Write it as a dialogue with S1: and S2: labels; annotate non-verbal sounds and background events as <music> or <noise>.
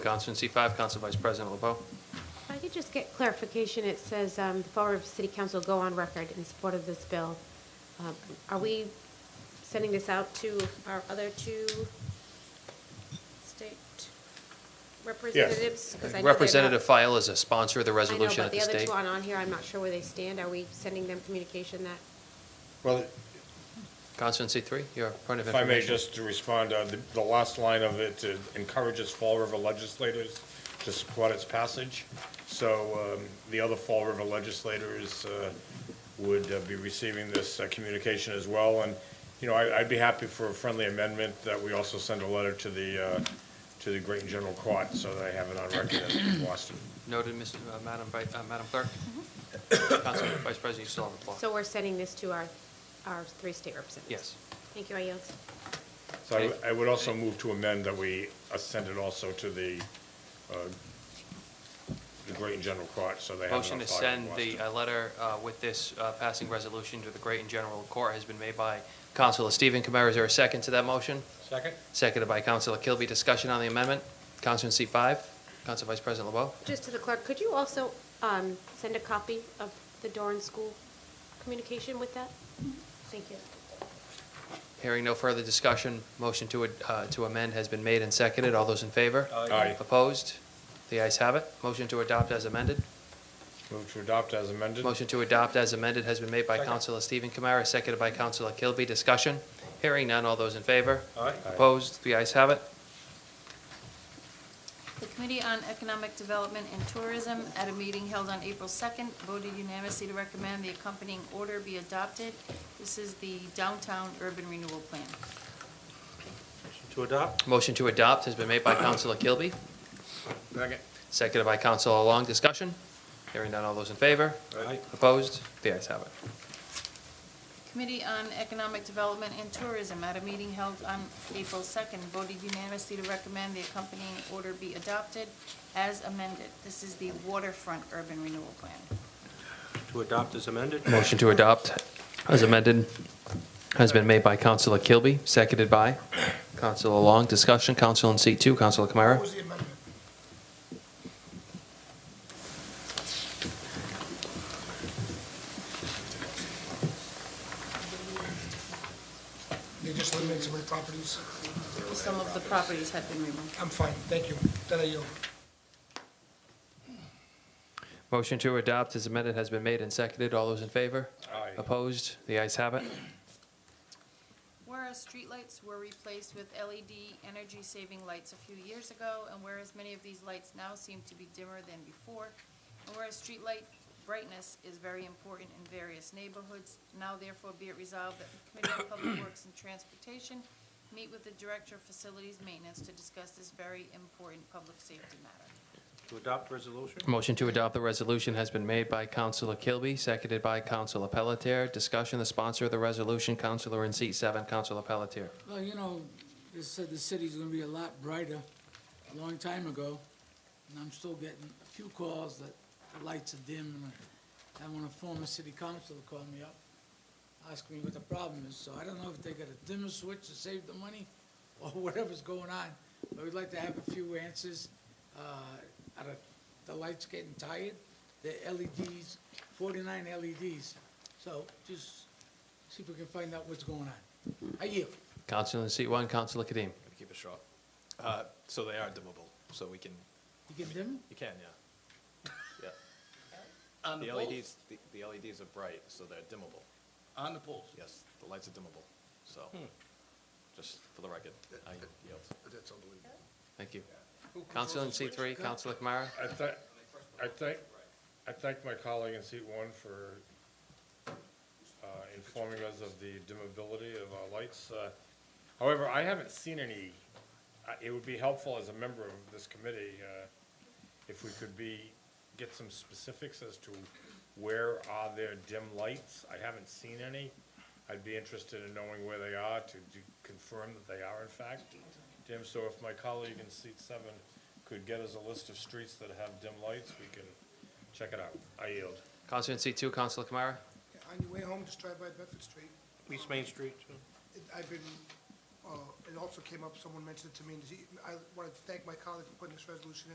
S1: Counselor in seat five, Counsel Vice President LeBeau.
S2: If I could just get clarification, it says, um, the Fall River City Council go on record in support of this bill. Um, Are we sending this out to our other two state representatives? 'Cause I know they're not-
S1: Representative File is a sponsor of the resolution at the
S2: I know, but
S1: state.
S2: the other two aren't on here, I'm not sure where they stand. Are we sending them communication that?
S3: Well,
S1: Counselor in seat three, your point of
S3: if I
S1: information.
S3: may, just to respond, uh, the- the last line of it uh, encourages Fall River legislators to support its passage. So um, the other Fall River legislators uh, would uh, be receiving this uh, communication as well. And, you know, I- I'd be happy for a friendly amendment that we also send a letter to the, uh, to the Great and General Court so they have it on record in Boston.
S1: Noted, Ms. uh, Madam Vi- uh, Madam Clerk. Counsel Vice President, you still have the floor.
S2: Mm-hmm. So we're sending this to our, our three state representatives?
S1: Yes.
S2: Thank you, I yield.
S3: So I would- I would also move to amend that we uh, send it also to the, uh, the Great and General Court, so they have it on
S1: Motion to
S3: file in
S1: send the,
S3: Boston.
S1: uh letter uh, with this uh, passing resolution to the Great and General Court has been made by Counselor Stephen Kamara. Is there a second to that motion?
S3: Second?
S1: Seconded by Counselor Kilby. Discussion on the amendment. Counselor in seat five, Counsel Vice President LeBeau.
S2: Just to the clerk, could you also um, send a copy of the Doran School communication with that? Thank you.
S1: Hearing no further discussion, motion to ad- uh, to amend has been made and seconded. All those in favor?
S3: Aye.
S1: Opposed? The ayes have it. Motion to adopt as amended.
S3: Move to adopt as amended?
S1: Motion to adopt as amended has been made by Counselor Stephen Kamara, seconded by Counselor Kilby. Discussion? Hearing none. All those in favor?
S3: Aye.
S1: Opposed? The ayes have it.
S4: The Committee on Economic Development and Tourism, at a meeting held on April 2nd, voted unanimously to recommend the accompanying order be adopted. This is the Downtown Urban Renewal Plan.
S5: To adopt?
S1: Motion to adopt has been made by Counselor Kilby,
S3: Second.
S1: seconded by Counselor Long. Discussion? Hearing none. All those in favor?
S5: Aye.
S1: Opposed? The ayes have it.
S4: Committee on Economic Development and Tourism, at a meeting held on April 2nd, voted unanimously to recommend the accompanying order be adopted as amended. This is the Waterfront Urban Renewal Plan.
S5: To adopt as amended?
S1: Motion to adopt as amended has been made by Counselor Kilby, seconded by Counselor Long. Discussion, Counsel in seat two, Counselor Kamara.
S6: was the amendment? They just eliminated some of the properties.
S4: Some of the properties have been removed.
S6: I'm fine, thank you. Then I yield.
S1: Motion to adopt as amended has been made and seconded. All those in favor?
S3: Aye.
S1: Opposed? The ayes have it.
S4: Whereas streetlights were replaced with E LED energy-saving lights a few years ago, and whereas many of these lights now seem to be dimmer than before, and whereas streetlight brightness is very important in various neighborhoods, now therefore be it resolved that the Committee on Public Works and Transportation meet with the Director of Facilities Maintenance to discuss this very important public safety matter.
S5: To adopt resolution?
S1: Motion to adopt the resolution has been made by Counselor Kilby, seconded by Counselor Pelletier. Discussion, the sponsor of the resolution, Counselor in seat seven, Counselor Pelletier.
S7: Well, you know, they said the city's gonna be a lot brighter a long time ago, and I'm still getting a few calls that the lights are dim, and I had one of the former city council call me up, ask me what the problem is, so I don't know if they got a dimmer switch to save the money, <laughs> or whatever's going on, but we'd like to have a few answers. Uh, are the- the lights getting tired? They're LEDs, forty-nine LEDs, so just see if we can find out what's going on. I yield.
S1: Counselor in seat one, Counselor Kadim.
S8: Gonna keep it short. Uh, so they are dimmable, so we can,
S7: You get them?
S8: you can, yeah. Yeah. The LEDs, the- the LEDs are bright, so they're dimmable.
S6: On the Hmm. polls.
S8: Yes, the lights are dimmable, so, just for the record, I yield.
S6: That's unbelievable.
S1: Thank you. Counselor in seat three, Counselor Kamara.
S3: I thank, I thank, I thank my colleague in seat one for uh, informing us of the dimmability of our lights. Uh, However, I haven't seen any, I- it would be helpful as a member of this committee uh, if we could be, get some specifics as to where are there dim lights? I haven't seen any. I'd be interested in knowing where they are to do- confirm that they are in fact dim. So if my colleague in seat seven could get us a list of streets that have dim lights, we can check it out. I yield.
S1: Counselor in seat two, Counselor Kamara.
S6: On your way home, just drive by Bedford Street.
S5: East Main Street, too.
S6: It- I've been uh, it also came up, someone mentioned it to me, and he- I want to thank my colleague for putting this resolution in.